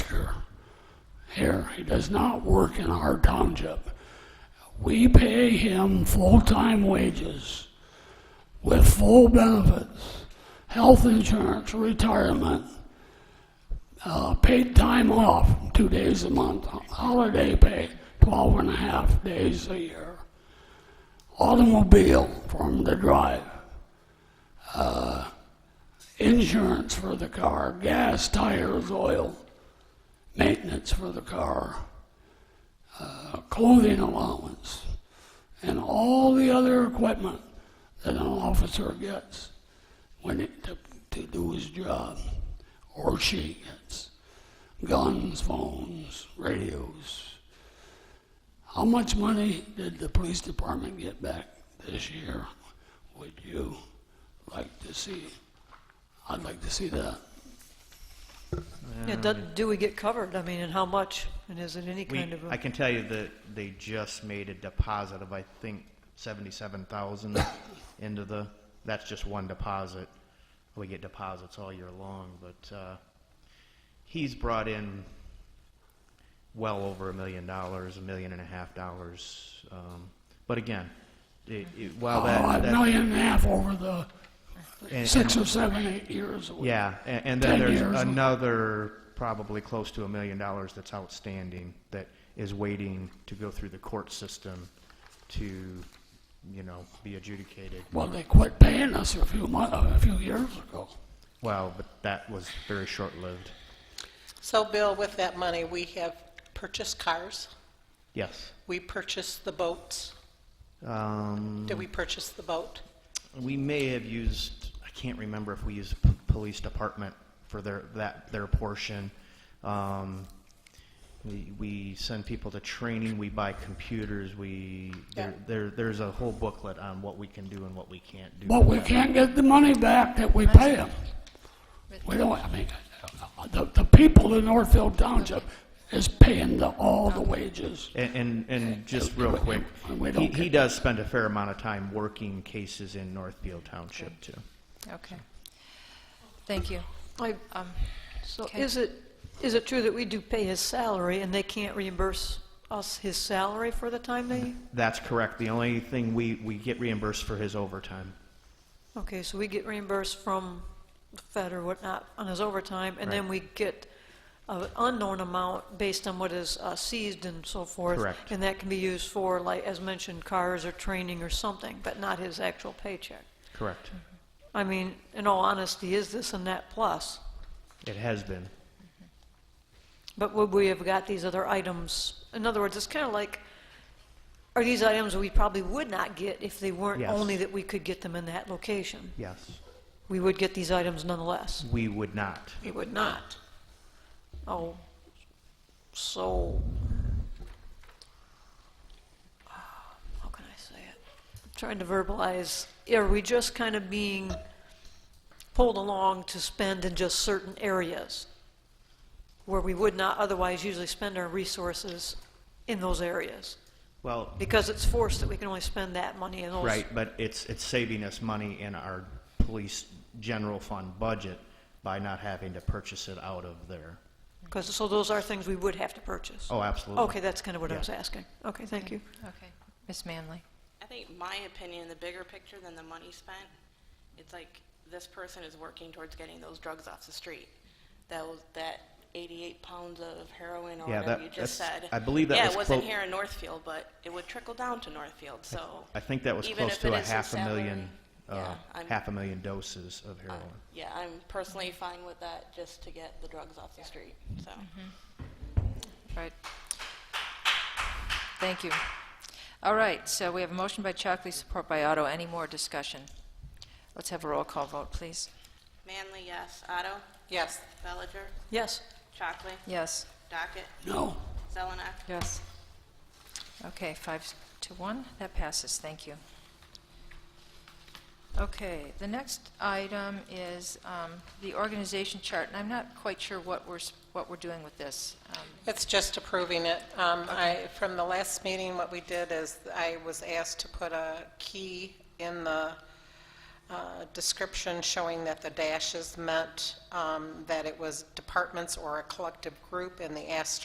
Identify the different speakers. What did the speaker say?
Speaker 1: here. He does not work in our township. We pay him full-time wages with full benefits, health insurance, retirement, uh, paid time off, two days a month, holiday pay, 12 and a half days a year, automobile for him to drive, uh, insurance for the car, gas, tires, oil, maintenance for the car, uh, clothing allowance, and all the other equipment that an officer gets when it, to, to do his job, or she gets. Guns, phones, radios. How much money did the police department get back this year? Would you like to see? I'd like to see that.
Speaker 2: Yeah, do, do we get covered? I mean, and how much? And is it any
Speaker 3: We,
Speaker 2: kind of a?
Speaker 3: I can tell you that they just made a deposit of, I think, seventy-seven thousand into the, that's just one deposit. We get deposits all year long, but, uh, he's brought in well over a million dollars, a million and a half dollars. Um, but again, it, it, while
Speaker 1: Oh,
Speaker 3: that,
Speaker 1: a
Speaker 3: that
Speaker 1: million and a half over the
Speaker 3: and-
Speaker 1: six or seven, eight years. it was.
Speaker 3: Yeah, a- and,
Speaker 1: Ten
Speaker 3: then there's
Speaker 1: years.
Speaker 3: another probably close to a million dollars that's outstanding that is waiting to go through the court system to, you know, be adjudicated.
Speaker 1: Well, they quit paying us a few months, a few years ago.
Speaker 3: Well, but that was very short-lived.
Speaker 4: So Bill, with that money, we have purchased cars,
Speaker 3: Yes.
Speaker 4: we purchased the boats.
Speaker 3: Um,
Speaker 4: Did we purchase the boat?
Speaker 3: we may have used, I can't remember if we used p- police department for their, that, their portion. Um, we, we send people to training, we buy computers, we, there,
Speaker 4: Yeah.
Speaker 3: there, there's a whole booklet on what we can do and what we can't do.
Speaker 1: But we can't get the money back that we pay them. We don't, I mean, the, the people in Northfield Township is paying the, all the wages.
Speaker 3: And, and, and just real quick,
Speaker 1: We
Speaker 3: he,
Speaker 1: don't
Speaker 3: he
Speaker 1: get,
Speaker 3: does spend a fair amount of time working cases in Northfield Township too.
Speaker 5: Okay. Thank you.
Speaker 2: I-
Speaker 5: Um,
Speaker 2: uh, So
Speaker 5: okay.
Speaker 2: is it, is it true that we do pay his salary and they can't reimburse us his salary for the time they?
Speaker 3: That's correct. The only thing we, we get reimbursed for his overtime.
Speaker 2: Okay, so we get reimbursed from the Fed or whatnot on his overtime, and then we get an unknown amount based on what is uh, seized and so forth.
Speaker 3: Correct.
Speaker 2: And that can be used for, like, as mentioned, cars or training or something, but not his actual paycheck.
Speaker 3: Correct.
Speaker 2: I mean, in all honesty, is this and that plus?
Speaker 3: It has been.
Speaker 2: But would we have got these other items? In other words, it's kind of like, are these items we probably would not get if they weren't
Speaker 3: Yes.
Speaker 2: only that we could get them in that location?
Speaker 3: Yes.
Speaker 2: We would get these items nonetheless.
Speaker 3: We would not.
Speaker 2: We would not. Oh, so, uh, how can I say it? I'm trying to verbalize, are we just kind of being pulled along to spend in just certain areas where we would not otherwise usually spend our resources in those areas?
Speaker 3: Well,
Speaker 2: Because it's forced that we can only spend that money in those.
Speaker 3: right, but it's, it's saving us money in our police general fund budget by not having to purchase it out of there.
Speaker 2: 'Cause- so those are things we would have to purchase.
Speaker 3: Oh, absolutely.
Speaker 2: Okay, that's kind of what I
Speaker 3: Yeah.
Speaker 2: was asking. Okay, thank you.
Speaker 5: Okay. Miss Manley.
Speaker 6: I think my opinion, the bigger picture than the money spent, it's like this person is working towards getting those drugs off the street. That was that 88 pounds of heroin or
Speaker 3: Yeah,
Speaker 6: whatever
Speaker 3: that-
Speaker 6: you just
Speaker 3: that's-
Speaker 6: said.
Speaker 3: I believe that
Speaker 6: yeah,
Speaker 3: was
Speaker 6: it wasn't
Speaker 3: quote-
Speaker 6: here in Northfield, but it would trickle down to Northfield. So
Speaker 3: I think that was
Speaker 6: even
Speaker 3: close
Speaker 6: if
Speaker 3: to
Speaker 6: it
Speaker 3: a
Speaker 6: is his
Speaker 3: half a million,
Speaker 6: salary,
Speaker 3: uh,
Speaker 6: yeah, I'm- uh,
Speaker 3: half a million doses of heroin.
Speaker 6: yeah, I'm personally fine with that, just to get the drugs off the street. So.
Speaker 5: Right. Thank you. All right, so we have a motion by Chockley, support by Otto. Any more discussion? Let's have a roll call vote, please.
Speaker 6: Manley, yes. Otto,
Speaker 4: Yes.
Speaker 6: Bellinger,
Speaker 2: Yes.
Speaker 6: Chockley,
Speaker 5: Yes.
Speaker 6: Docket,
Speaker 1: no,
Speaker 6: Zelenak.
Speaker 5: Yes. Okay, five s- to one, that passes, thank you. Okay, the next item is um, the organization chart, and I'm not quite sure what we're, s- what we're doing with this. Um,
Speaker 4: It's just approving it. Um, I, from the last meeting, what we did is I was asked to put a key in the uh, description showing that the dashes meant um, that it was departments or a collective group, and the asterisk